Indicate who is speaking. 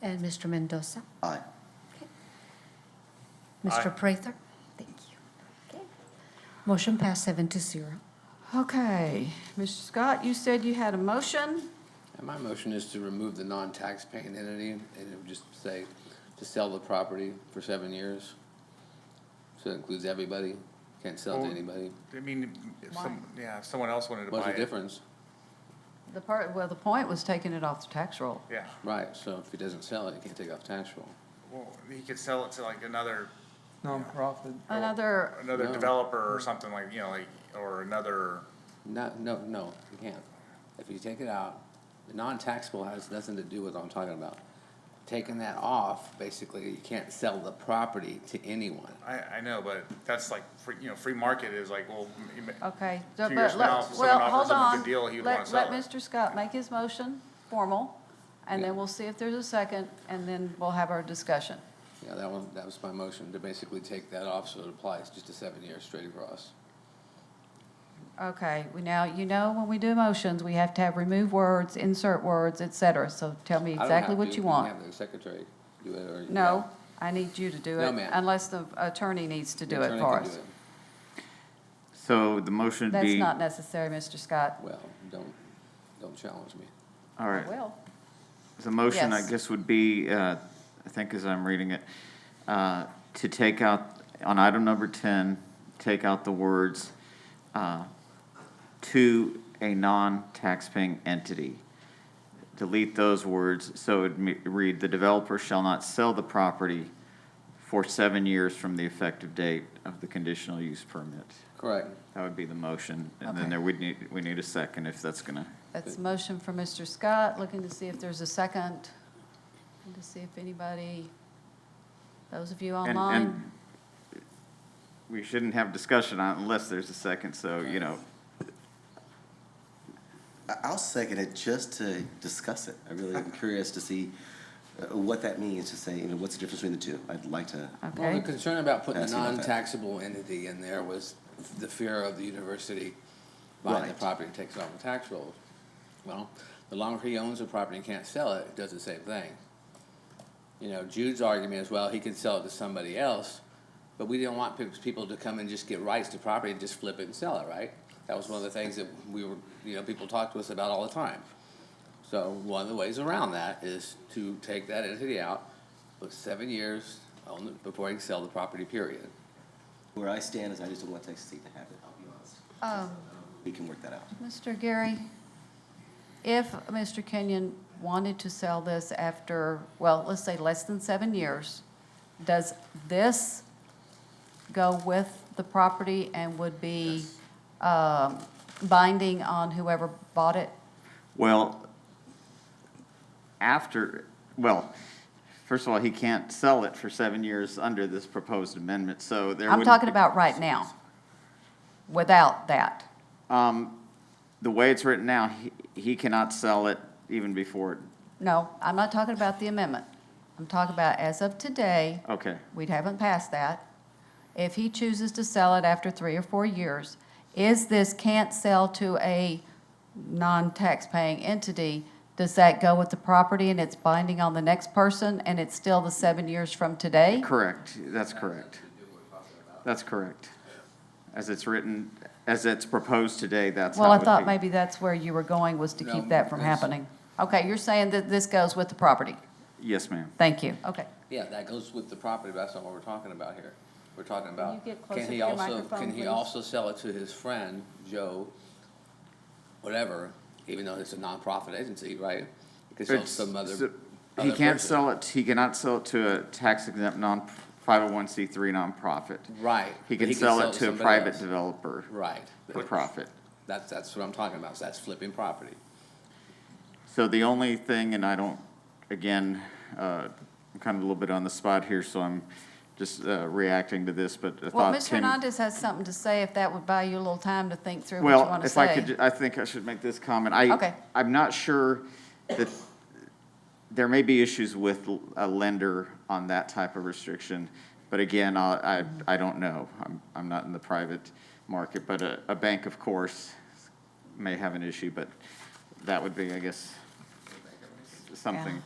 Speaker 1: And Mr. Mendoza?
Speaker 2: Aye.
Speaker 1: Mr. Prather? Thank you. Motion passed seven to zero.
Speaker 3: Okay, Mr. Scott, you said you had a motion.
Speaker 4: And my motion is to remove the non-taxpaying entity and it would just say to sell the property for seven years. So it includes everybody, can't sell to
Speaker 5: Well-
Speaker 4: anybody.
Speaker 5: I mean, if some, yeah, if someone else wanted to buy
Speaker 4: What's the
Speaker 5: it.
Speaker 4: difference?
Speaker 3: The part, well, the point was taking it off the tax roll.
Speaker 5: Yeah,
Speaker 4: Right, so if he doesn't sell it, he can't take off tax roll.
Speaker 5: well, he could sell it to like another,
Speaker 6: nonprofit.
Speaker 3: Another,
Speaker 5: another
Speaker 4: No.
Speaker 5: developer or something like, you know, like, or another,
Speaker 4: No, no, no, he can't. If you take it out, the non-taxable has nothing to do with what I'm talking about. Taking that off, basically, you can't sell the property to anyone.
Speaker 5: I, I know, but that's like, free you know, free market is like, well, you ma-
Speaker 3: okay. so-
Speaker 5: Two
Speaker 3: but
Speaker 5: years from now,
Speaker 3: let's-
Speaker 5: if
Speaker 3: well,
Speaker 5: someone offers
Speaker 3: hold
Speaker 5: him a
Speaker 3: on.
Speaker 5: good deal, he would
Speaker 3: Let-
Speaker 5: wanna sell
Speaker 3: Let
Speaker 5: it.
Speaker 3: Mr. Scott make his motion formal, and
Speaker 4: Yeah.
Speaker 3: then we'll see if there's a second, and then we'll have our discussion.
Speaker 4: Yeah, that one, that was my motion, to basically take that off so it applies just to seven years straight across.
Speaker 3: Okay, we now, you know, when we do motions, we have to have remove words, insert words, et cetera. So tell me
Speaker 4: I don't
Speaker 3: exactly
Speaker 4: have
Speaker 3: what
Speaker 4: to.
Speaker 3: you
Speaker 4: You
Speaker 3: want.
Speaker 4: can have the secretary do it, or.
Speaker 3: No, I need you to do it.
Speaker 4: No, ma'am.
Speaker 3: Unless the attorney needs to
Speaker 4: The
Speaker 3: do it
Speaker 4: attorney
Speaker 3: for
Speaker 4: can do
Speaker 3: us.
Speaker 4: it.
Speaker 6: So the motion would
Speaker 3: That's
Speaker 6: be,
Speaker 3: not
Speaker 6: all
Speaker 3: necessary, Mr. Scott.
Speaker 4: Well, don't, don't challenge me.
Speaker 6: right,
Speaker 3: Well,
Speaker 6: the motion, I
Speaker 3: Yes.
Speaker 6: guess, would be, uh, I think as I'm reading it, uh, to take out, on item number 10, take out the words, uh, "to a non-taxpaying entity." Delete those words, so it would me- read, "The developer shall not sell the property for seven years from the effective date of the conditional use permit."
Speaker 4: Correct.
Speaker 6: That would be the motion, and
Speaker 3: Okay.
Speaker 6: then there, we'd need, we need a second if that's gonna,
Speaker 3: That's a motion for Mr. Scott, looking to see if there's a second, and to see if anybody, those of you
Speaker 6: and,
Speaker 3: online,
Speaker 6: and we shouldn't have discussion on it unless there's a second, so, you know,
Speaker 2: I- I'll second it just to discuss it. I really am curious to see uh, what that means, to say, you know, what's the difference between the two? I'd like to,
Speaker 4: Well, the
Speaker 3: okay?
Speaker 4: concern about putting a
Speaker 2: Ask about that.
Speaker 4: non-taxable entity in there was the fear of the university buying the
Speaker 2: Right.
Speaker 4: property takes off the tax rolls. Well, the longer he owns the property and can't sell it, it does the same thing. You know, Jude's argument is, well, he can sell it to somebody else, but we didn't want pe- people to come and just get rights to property and just flip it and sell it, right? That was one of the things that we were, you know, people talked to us about all the time. So one of the ways around that is to take that entity out, put seven years on the, before he can sell the property, period.
Speaker 2: where I stand is I just don't want Texas State to have it, I'll be honest.
Speaker 3: Um,
Speaker 2: We can work that out.
Speaker 3: Mr. Gary, if Mr. Kenyon wanted to sell this after, well, let's say less than seven years, does this go with the property and would be um, binding on whoever bought it?
Speaker 6: well, after, well, first of all, he can't sell it for seven years under this proposed amendment, so there
Speaker 3: I'm
Speaker 6: wouldn't
Speaker 3: talking
Speaker 6: be-
Speaker 3: about right now, without that.
Speaker 6: Um, the way it's written now, he, he cannot sell it even before, it-
Speaker 3: No, I'm not talking about the amendment. I'm talking about as of today,
Speaker 6: okay.
Speaker 3: we haven't passed that. If he chooses to sell it after three or four years, is this can't sell to a non-taxpaying entity? Does that go with the property and it's binding on the next person and it's still the seven years from today?
Speaker 6: Correct, that's correct. That's correct. As it's written, as it's proposed today, that's how it
Speaker 3: Well, I
Speaker 6: would
Speaker 3: thought
Speaker 6: be.
Speaker 3: maybe that's where you were going, was to keep
Speaker 4: No,
Speaker 3: that from
Speaker 4: it's-
Speaker 3: happening. Okay, you're saying that this goes with the property?
Speaker 6: Yes, ma'am.
Speaker 3: Thank you, okay.
Speaker 4: Yeah, that goes with the property, but that's not what we're talking about here. We're talking about,
Speaker 3: you get closer
Speaker 4: can
Speaker 3: to
Speaker 4: he
Speaker 3: your
Speaker 4: also,
Speaker 3: microphone,
Speaker 4: can he
Speaker 3: please?
Speaker 4: also sell it to his friend, Joe, whatever, even though it's a nonprofit agency, right? He could sell to
Speaker 6: It's-
Speaker 4: some other.
Speaker 6: so- He
Speaker 4: other
Speaker 6: can't
Speaker 4: person.
Speaker 6: sell it, he cannot sell it to a tax exempt non, five oh one C three nonprofit.
Speaker 4: Right.
Speaker 6: He
Speaker 4: but
Speaker 6: can sell it to a
Speaker 4: somebody
Speaker 6: private
Speaker 4: else.
Speaker 6: developer
Speaker 4: Right.
Speaker 6: for profit.
Speaker 4: That's, that's what I'm talking about, so that's flipping property.
Speaker 6: So the only thing, and I don't, again, uh, I'm kind of a little bit on the spot here, so I'm just uh, reacting to this, but I
Speaker 3: Well,
Speaker 6: thought
Speaker 3: Mr.
Speaker 6: Tim.
Speaker 3: Hernandez has something to say, if that would buy you a little time to think through what you
Speaker 6: Well,
Speaker 3: want to
Speaker 6: if
Speaker 3: say.
Speaker 6: I could, ju- I think I should make this comment. I,
Speaker 3: Okay.
Speaker 6: I'm not sure that, there may be issues with l- a lender on that type of restriction, but again, I, I, I don't know. I'm, I'm not in the private market, but a, a bank, of course, may have an issue, but that would be, I guess, something.